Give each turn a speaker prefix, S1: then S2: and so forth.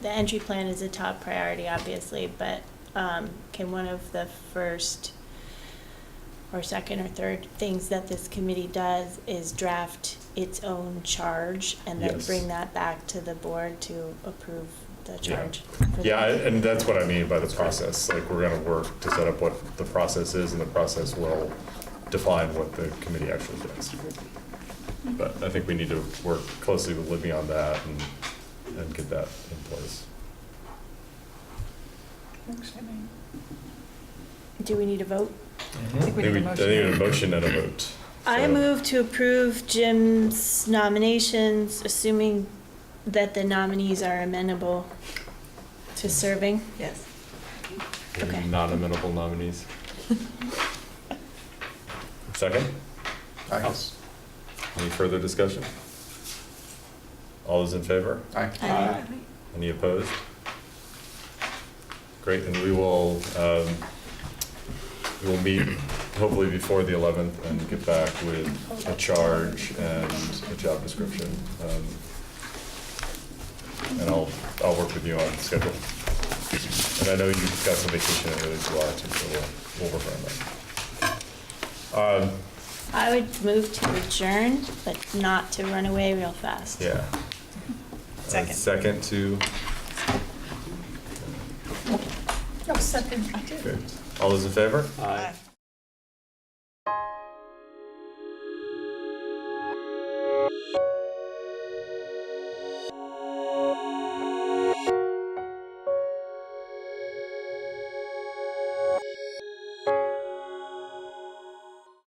S1: The entry plan is a top priority, obviously, but um, can one of the first or second or third things that this committee does is draft its own charge and then
S2: Yes.
S1: bring that back to the board to approve the
S2: Yeah.
S1: charge? for the-
S2: Yeah, I- and that's what I mean by the process, like, we're gonna work to set up what the process is, and the process will define what the committee actually does. But I think we need to work closely with Libby on that and, and get that in place.
S1: Do we need a vote?
S3: I think we need a
S2: I think we need a
S3: motion.
S2: motion and a vote.
S1: I
S2: So-
S1: move to approve Jim's nominations, assuming that the nominees are amenable to serving.
S3: Yes.
S1: okay.
S2: Non-amenable nominees. Second,
S4: Aye.
S2: any further discussion? All those in favor?
S1: Aye.
S2: Any opposed? Great, and we will, um, we will meet hopefully before the 11th and get back with a charge and a job description. Um, And I'll, I'll work with you on schedule. And I know you've got some vacation in early July too, so we'll, we'll work on that. Um,
S1: I would move to adjourn, but not to run away real fast.
S2: Yeah. Uh,
S3: Second.
S2: Second to,
S3: No, second, I did.
S2: good. All those in favor?
S3: Aye.